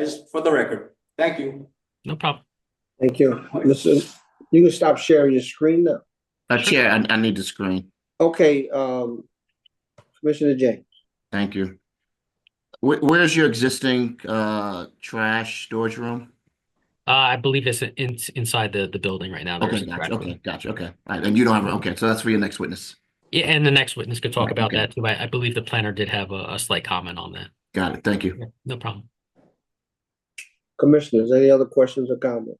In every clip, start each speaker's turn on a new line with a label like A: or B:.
A: Just for the record, thank you.
B: No problem.
C: Thank you. Listen, you can stop sharing your screen now.
D: Uh, Chair, I, I need the screen.
C: Okay, um, Commissioner James.
D: Thank you. Where, where's your existing, uh, trash storage room?
B: Uh, I believe it's in, inside the, the building right now. There
D: Okay,
B: is a
D: gotcha,
B: crack room.
D: okay, gotcha, okay. All right, and you don't have, okay, so that's for your next witness.
B: Yeah, and the next witness could talk
D: Right,
B: about
D: okay.
B: that too. I, I believe the planner did have a, a slight comment on that.
D: Got it, thank you.
B: No problem.
C: Commissioners, any other questions or comments?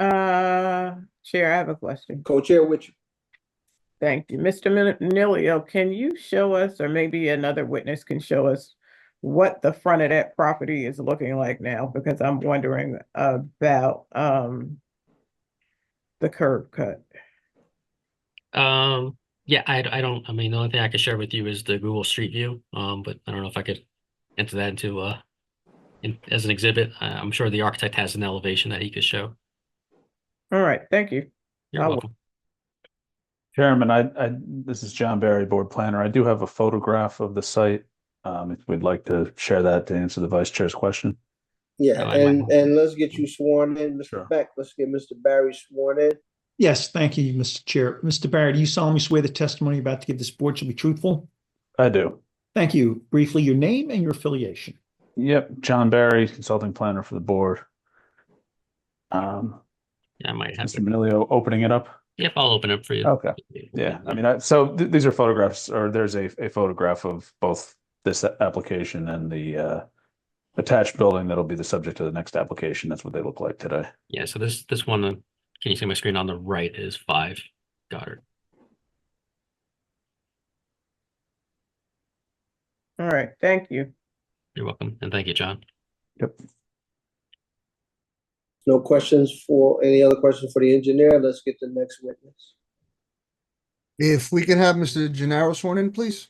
E: Uh, Chair, I have a question.
C: Co-chair with you.
E: Thank you. Mr. Minilio, can you show us, or maybe another witness can show us what the front of that property is looking like now? Because I'm wondering about, um, the curb cut.
B: Um, yeah, I, I don't, I mean, the only thing I could share with you is the Google Street View. Um, but I don't know if I could enter that into, uh, in, as an exhibit. I, I'm sure the architect has an elevation that he could show.
E: All right, thank you.
B: You're
E: I will.
B: welcome.
F: Chairman, I, I, this is John Barry, Board Planner. I do have a photograph of the site. Um, if we'd like to share that to answer the Vice Chair's question.
B: No,
C: Yeah,
B: I might
C: and,
B: not.
C: and let's get you sworn in,
F: Sure.
C: Mr. Beck. Let's get Mr. Barry sworn in.
G: Yes, thank you, Mr. Chair. Mr. Barrett, do you solemnly swear the testimony you're about to give this board shall be truthful?
F: I do.
G: Thank you. Briefly, your name and your affiliation.
F: Yep, John Barry, Consulting Planner for the Board. Um,
B: Yeah, I might have,
F: Mr.
B: it.
F: Manilio, opening it up?
B: yep, I'll open it for you.
F: Okay. Oh, Yeah, I mean, I, so th- these are photographs, or there's a, a photograph of both this a- application and the, uh, attached building that'll be the subject of the next application. That's what they look like today.
B: Yeah, so this, this one, uh, can you see my screen on the right is five Goddard.
E: All right, thank you.
B: You're welcome. And thank you, John.
F: Yep.
C: No questions for, any other questions for the engineer? Let's get the next witness.
H: If we can have Mr. Gennaro sworn in, please.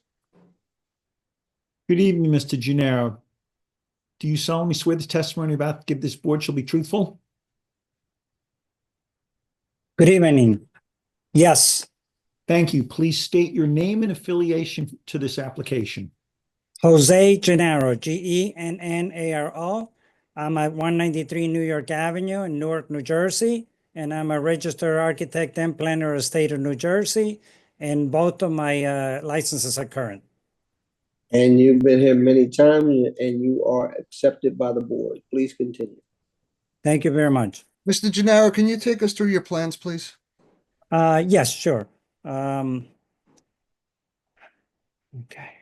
G: Good evening, Mr. Gennaro. Do you solemnly swear the testimony you're about to give this board shall be truthful?
I: Good evening. Yes,
G: Thank you. Please state your name and affiliation to this application.
I: Jose Gennaro, G E N N A R O. I'm at 193 New York Avenue in Newark, New Jersey, and I'm a registered architect and planner of the state of New Jersey, and both of my uh, licenses are current.
C: And you've been here many times and you are accepted by the board. Please continue.
I: Thank you very much.
H: Mr. Gennaro, can you take us through your plans, please?
I: Uh, yes, sure. Um, okay.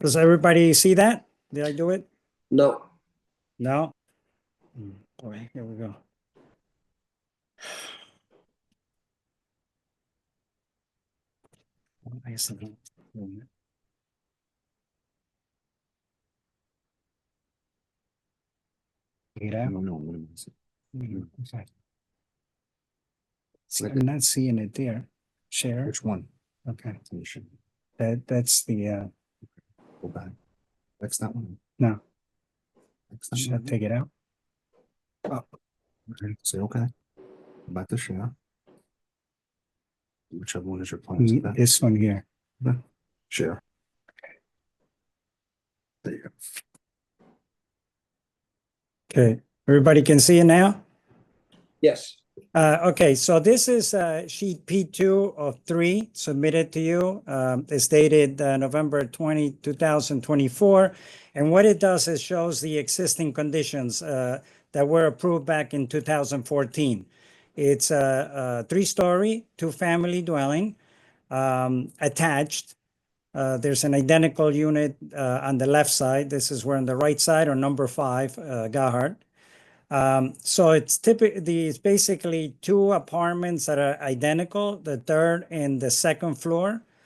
I: Does everybody see that? Did I do it?
C: No,
I: No. Mm, Boy, here we go. I guess I don't- wait a minute. Wait, I- mm, okay. See, I'm not seeing it there. Share. Which one? Okay. That, that's the, uh,
J: Go back. That's not one.
I: No.
J: That's
I: should
J: not
I: I
J: one.
I: take it out?
J: Okay, Say, okay. About to share. Whichever one is your plan.
I: Mm, This one here.
J: Hmm. Share. There you go.
I: Okay, everybody can see it now?
C: yes.
I: Uh, okay, so this is, uh, sheet P two of three submitted to you. Um, it's dated, uh, November 20, 2024, And what it does is shows the existing conditions, uh, that were approved back in two thousand fourteen. It's a, a three-story, two-family dwelling, um, attached. Uh, there's an identical unit, uh, on the left side. This is where on the right side or number five, uh, Gahart. Um, so it's typically, it's basically two apartments that are identical, the third and the second floor.